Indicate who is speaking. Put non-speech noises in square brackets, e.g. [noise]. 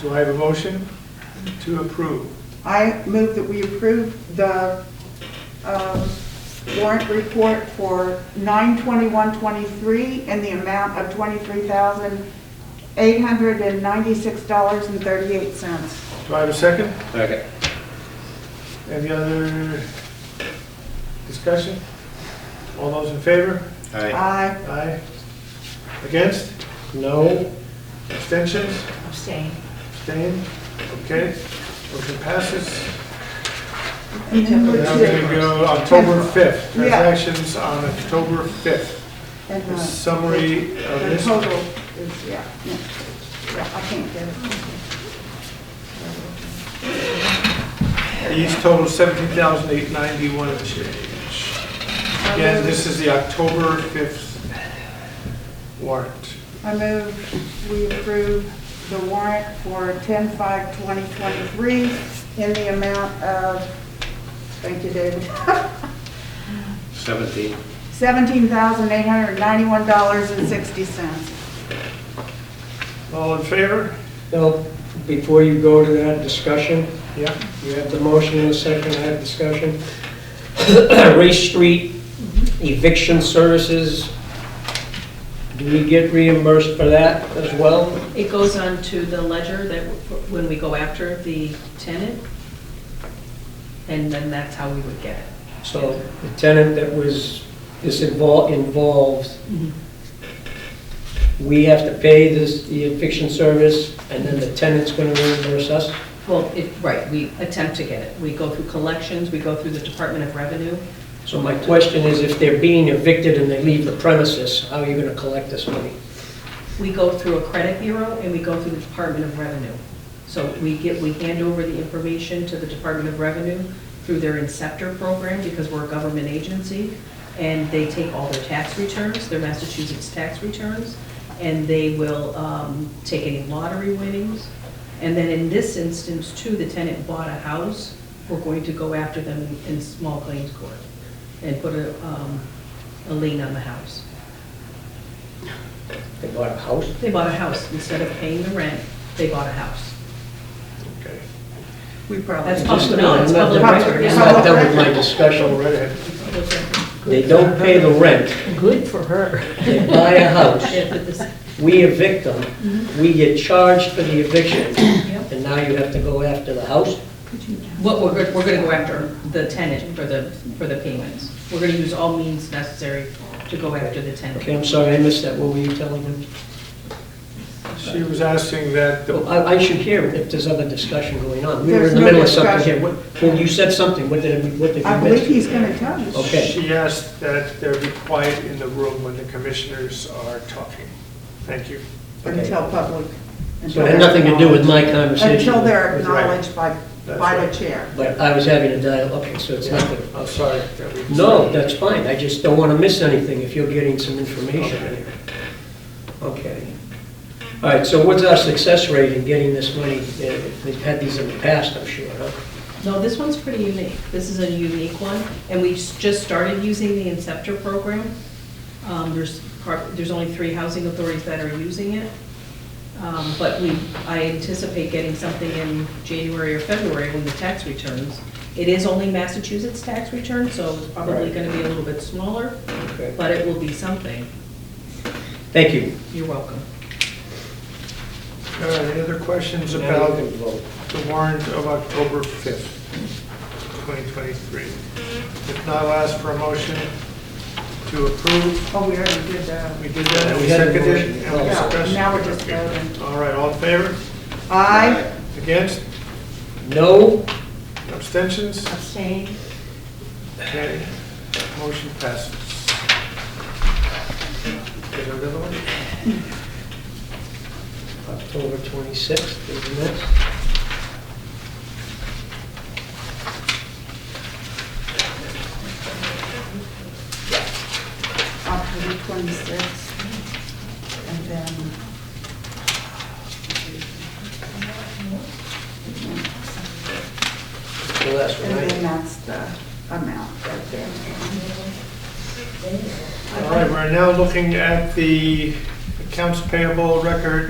Speaker 1: Do I have a motion to approve?
Speaker 2: I move that we approve the um, warrant report for 9/21/23 in the amount of $23,896.38.
Speaker 1: Do I have a second?
Speaker 3: Second.
Speaker 1: Any other discussion? All those in favor?
Speaker 3: Aye.
Speaker 2: Aye.
Speaker 1: Aye. Against? No. Abstentions?
Speaker 4: Abstain.
Speaker 1: Abstain? Okay, motion passes.
Speaker 2: And then
Speaker 1: Now
Speaker 2: move
Speaker 1: we're going to
Speaker 2: to-
Speaker 1: go October 5th,
Speaker 2: Yeah.
Speaker 1: transactions on October 5th.
Speaker 2: and
Speaker 1: The
Speaker 2: the-
Speaker 1: Summary of
Speaker 2: The
Speaker 1: this,
Speaker 2: total is, yeah, yeah, yeah, I can't get it.
Speaker 1: these total 17,891 and change. Again, this is the October 5th warrant.
Speaker 2: I move we approve the warrant for 10/5/2023 in the amount of, thank you, David, [laughs]
Speaker 3: Seventeen.
Speaker 2: $17,891.60.
Speaker 1: All in favor?
Speaker 5: Now, before you go to that discussion,
Speaker 1: Yeah.
Speaker 5: you have the motion in a second, I have discussion. [coughs] Race Street eviction services, do we get reimbursed for that as well?
Speaker 4: It goes on to the ledger that, w- when we go after the tenant, and then that's how we would get it.
Speaker 5: So the tenant that was, is invol- involved, we have to pay this, the eviction service, and then the tenant's gonna reimburse us?
Speaker 4: Well, it, right, we attempt to get it. We go through collections, we go through the Department of Revenue.
Speaker 5: So my question is, if they're being evicted and they leave the premises, how are you gonna collect this money?
Speaker 4: We go through a credit bureau, and we go through the Department of Revenue. So we get, we hand over the information to the Department of Revenue through their Inceptor program, because we're a government agency, and they take all their tax returns, their Massachusetts tax returns, and they will um, take any lottery winnings. And then in this instance, too, the tenant bought a house, we're going to go after them in small claims court and put a um, a lien on the house.
Speaker 5: They bought a house?
Speaker 4: They bought a house. Instead of paying the rent, they bought a house.
Speaker 1: Okay.
Speaker 2: We
Speaker 4: That's
Speaker 2: probably.
Speaker 4: public, no, it's public
Speaker 2: Public
Speaker 4: record.
Speaker 5: I'm
Speaker 4: It's
Speaker 5: not
Speaker 4: public
Speaker 5: done with
Speaker 4: record.
Speaker 5: my discussion
Speaker 1: Go right
Speaker 5: already.
Speaker 1: ahead.
Speaker 5: They don't pay the rent,
Speaker 6: Good for her.
Speaker 5: they buy a house,
Speaker 4: Yeah, but this-
Speaker 5: we evict them, we get charged for the eviction,
Speaker 4: Yep.
Speaker 5: and now you have to go after the house?
Speaker 4: What we're, go- we're gonna go after the tenant for the, for the payments. We're gonna use all means necessary to go after the
Speaker 5: Okay,
Speaker 4: tenant.
Speaker 5: I'm sorry, I missed that, what were you telling me?
Speaker 1: She was asking that, the-
Speaker 5: Well, I, I should hear if there's other discussion going on. We were
Speaker 2: There's
Speaker 5: in the
Speaker 2: no
Speaker 5: middle of something
Speaker 2: discussion.
Speaker 5: here. What- When you said something, what did, it- what did
Speaker 2: I
Speaker 5: you
Speaker 2: believe
Speaker 5: miss?
Speaker 2: he's going to tell you.
Speaker 5: Okay.
Speaker 1: she asked that there be quiet in the room when the commissioners are talking. Thank you.
Speaker 2: Until public.
Speaker 5: So it had nothing to do with my conversation.
Speaker 2: Until they're
Speaker 1: That's right.
Speaker 2: acknowledged by,
Speaker 1: That's
Speaker 2: by
Speaker 1: right.
Speaker 2: the chair.
Speaker 5: But I was having a dialogue, okay, so it's not the
Speaker 1: I'm sorry that we...
Speaker 5: No, that's fine, I just don't want to miss anything if you're getting some information here. Okay. All right, so what's our success rate in getting this money? Uh, We've had these in the past, I'm sure, huh?
Speaker 4: No, this one's pretty unique. This is a unique one, and we s- just started using the Inceptor program. Um, there's, par- there's only three housing authorities that are using it. Um, but we, I anticipate getting something in January or February when the tax returns. It is only Massachusetts tax return, so it's probably
Speaker 5: Right.
Speaker 4: gonna be a little bit smaller,
Speaker 5: Okay.
Speaker 4: but it will be something.
Speaker 5: Thank you.
Speaker 4: You're welcome.
Speaker 1: All right, any other questions
Speaker 5: Now
Speaker 1: about
Speaker 5: you can vote.
Speaker 1: the warrant of October 5th, 2023? If not, I'll ask for a motion to approve.
Speaker 2: Oh, we already did that.
Speaker 1: We did that, and we
Speaker 5: We had a
Speaker 1: seconded it,
Speaker 5: motion. Oh,
Speaker 1: and we
Speaker 5: Yeah,
Speaker 1: discussed.
Speaker 2: now we're just voting.
Speaker 1: All right, all in favor?
Speaker 2: Aye.
Speaker 1: Against?
Speaker 5: No,
Speaker 1: Abstentions?
Speaker 4: Abstain.
Speaker 1: Okay, motion passes. Is there another one?
Speaker 5: October 26th is the next.
Speaker 2: October 26th. And then.
Speaker 5: The last one,
Speaker 2: And then
Speaker 5: right?
Speaker 2: that's the amount right there.
Speaker 1: All right, we're now looking at the accounts payable record